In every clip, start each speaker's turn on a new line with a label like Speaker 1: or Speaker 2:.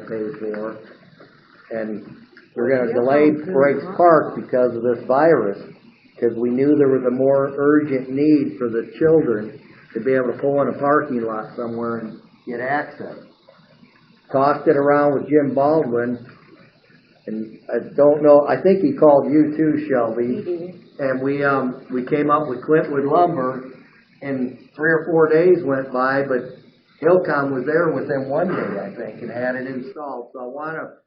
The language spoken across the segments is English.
Speaker 1: paid for. And we're gonna delay Brakes Park because of this virus, because we knew there was a more urgent need for the children to be able to pull in a parking lot somewhere and get access. Tossed it around with Jim Baldwin, and I don't know, I think he called you too, Shelby. And we, um, we came up with Clintwood lumber, and three or four days went by, but Hillcom was there within one day, I think, and had it installed. So I wanna,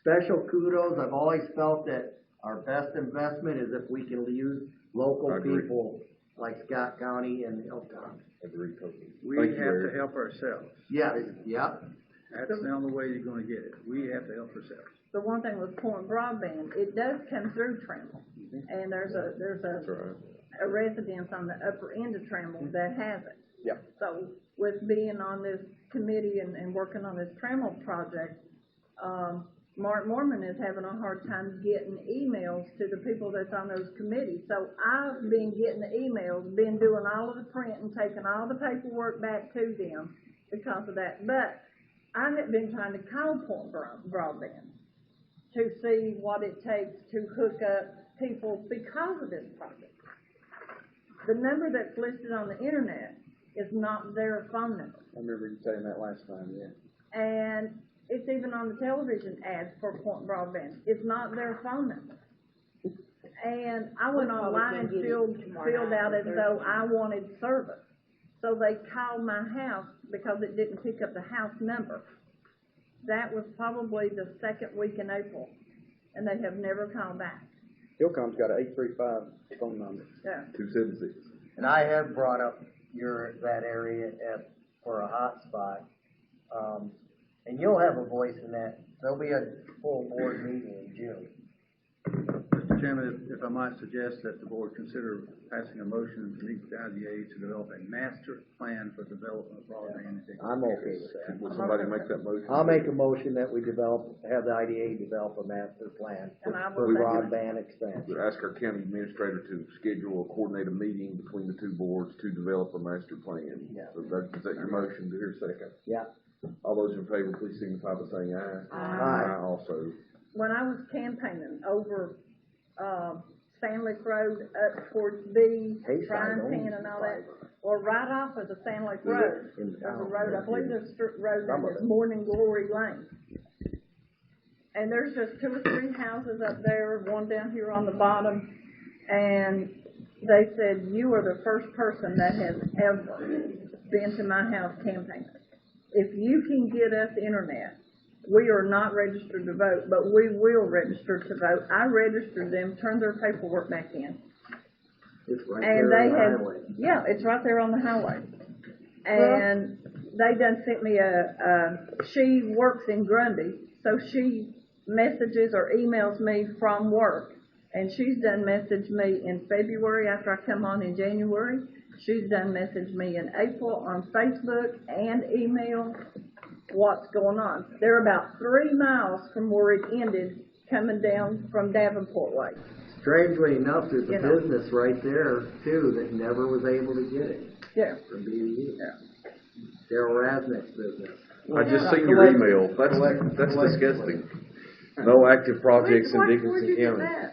Speaker 1: special kudos, I've always felt that our best investment is if we can use local
Speaker 2: Agree.
Speaker 1: people like Scott County and Hillcom.
Speaker 2: Agree totally.
Speaker 3: We
Speaker 2: Thank you,
Speaker 3: have to
Speaker 2: Larry.
Speaker 3: help ourselves.
Speaker 1: Yeah, it- yep,
Speaker 3: That's the only way you're gonna get it. We have to help ourselves.
Speaker 4: the one thing with pouring broadband, it does come through Trammell. And there's a, there's
Speaker 2: That's
Speaker 4: a,
Speaker 2: all right.
Speaker 4: a residence on the upper end of Trammell that has it.
Speaker 2: Yeah.
Speaker 4: So with being on this committee and, and working on this Trammell project, um, Mark Mormon is having a hard time getting emails to the people that's on those committees. So I've been getting the emails, been doing all of the print and taking all the paperwork back to them because of that. But I have been trying to call Point Bro- Broadband to see what it takes to hook up people because of this project. The number that's listed on the internet is not their phone number.
Speaker 5: I remember you saying that last time, yeah.
Speaker 4: And it's even on the television ads for Point Broadband, it's not their phone number. And I went
Speaker 6: We'll probably
Speaker 4: online and
Speaker 6: get it
Speaker 4: filled,
Speaker 6: tomorrow
Speaker 4: filled
Speaker 6: night
Speaker 4: out
Speaker 6: or
Speaker 4: as though I wanted service. So they called my house because it didn't pick up the house number. That was probably the second week in April, and they have never called back,
Speaker 5: Hillcom's got an eight three five phone number.
Speaker 4: yeah.
Speaker 2: Two seven six.
Speaker 1: and I have brought up your, that area at, for a hotspot. Um, and you'll have a voice in that, there'll be a full board meeting in June.
Speaker 3: Mr. Chairman, if- if I might suggest that the board consider passing a motion to meet with IDA to develop a master plan for development of broadband. in-
Speaker 1: I'm okay with that.
Speaker 2: Will somebody make that motion?
Speaker 1: I'll make a motion that we develop, have the IDA develop a master plan for
Speaker 4: And I will
Speaker 1: for
Speaker 4: second
Speaker 1: broadband expansion.
Speaker 2: Would ask our county administrator to schedule or coordinate a meeting between the two boards to develop a master plan.
Speaker 1: Yeah.
Speaker 2: So that, is that your motion? Do your second.
Speaker 1: Yeah,
Speaker 2: All those in favor, please signify by saying aye.
Speaker 1: Aye.
Speaker 2: Aye also.
Speaker 4: when I was campaigning over, um, Stanley Road up towards B,
Speaker 1: Hayside
Speaker 4: Brian
Speaker 1: owns
Speaker 4: Pan and all that, or right off of the Stanley
Speaker 1: Yeah,
Speaker 4: Road,
Speaker 1: in
Speaker 4: there's a
Speaker 1: town,
Speaker 4: road,
Speaker 1: yeah.
Speaker 4: I believe there's a strip road
Speaker 1: Some
Speaker 4: name
Speaker 1: of
Speaker 4: that's
Speaker 1: it.
Speaker 4: Morning Glory Lane. And there's just two or three houses up there, one down here on the bottom, and they said, you are the first person that has ever been to my house campaigning. If you can get us internet, we are not registered to vote, but we will register to vote. I registered them, turned their paperwork back in,
Speaker 1: it's right
Speaker 4: and they
Speaker 1: there
Speaker 4: had,
Speaker 1: on the highway.
Speaker 4: yeah, it's right there on the highway. And they done sent me a, a, she works in Grundy, so she messages or emails me from work. And she's done messaged me in February after I come on in January. She's done messaged me in April on Facebook and email what's going on. They're about three miles from where it ended coming down from Davenport Way.
Speaker 1: Strangely enough, there's a
Speaker 4: You know.
Speaker 1: business right there too that never was able to get it
Speaker 4: Yeah.
Speaker 1: from BDU. Daryl Rasnick's business.
Speaker 2: I just seen your email. That's, that's disgusting. No active projects in Dickinson County.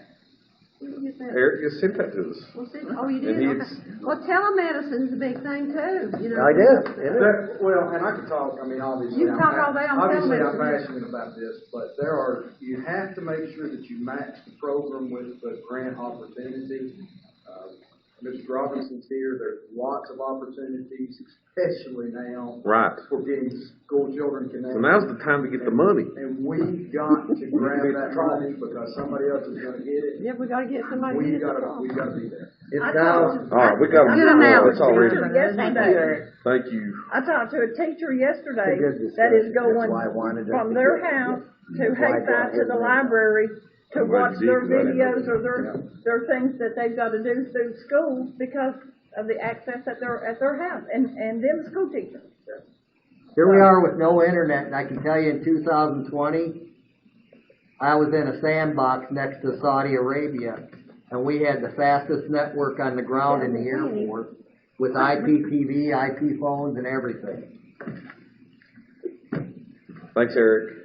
Speaker 2: Eric just sent that to us.
Speaker 6: Well, see, oh, you
Speaker 2: And
Speaker 6: did,
Speaker 2: he
Speaker 6: okay. Well, telemedicine's a big thing too, you know.
Speaker 1: I did, it is.
Speaker 7: There, well, and I could talk, I mean, obviously.
Speaker 6: You can
Speaker 7: I'm
Speaker 6: talk
Speaker 7: pa-
Speaker 6: all day on
Speaker 7: Obviously, I'm
Speaker 6: television.
Speaker 7: passionate about this, but there are, you have to make sure that you match the program with the grant opportunity. Uh, Mr. Robinson's here, there's lots of opportunities, especially now.
Speaker 2: Right.
Speaker 7: For getting school children connected.
Speaker 2: So now's the time to get the money.
Speaker 7: And we've got to grab that money because somebody else is gonna get it.
Speaker 6: Yeah, we gotta get somebody to
Speaker 7: We've
Speaker 6: get
Speaker 7: gotta,
Speaker 6: involved.
Speaker 7: we've gotta be there.
Speaker 1: It's
Speaker 4: I
Speaker 1: now,
Speaker 2: All right, we got,
Speaker 4: Good
Speaker 2: well, it's already,
Speaker 4: Yes, we do.
Speaker 2: thank you.
Speaker 4: I talked to a teacher yesterday
Speaker 1: It's a good
Speaker 4: that is
Speaker 1: discussion. That's
Speaker 4: going
Speaker 1: why I wanted us to
Speaker 4: from their
Speaker 1: get it.
Speaker 4: house to
Speaker 1: That's why I
Speaker 4: Hayside
Speaker 1: got
Speaker 4: to
Speaker 1: it.
Speaker 4: the library to
Speaker 2: I'm
Speaker 4: watch
Speaker 2: glad you
Speaker 4: their
Speaker 2: did, 'cause I didn't know
Speaker 4: videos or
Speaker 2: that.
Speaker 4: their, their things that they've gotta do through school because of the access at their, at their house and, and them school teachers.
Speaker 1: here we are with no internet, and I can tell you in two thousand twenty, I was in a sandbox next to Saudi Arabia, and we had the fastest network on the ground in the airport with IPTV, IP phones and everything.
Speaker 2: Thanks, Eric.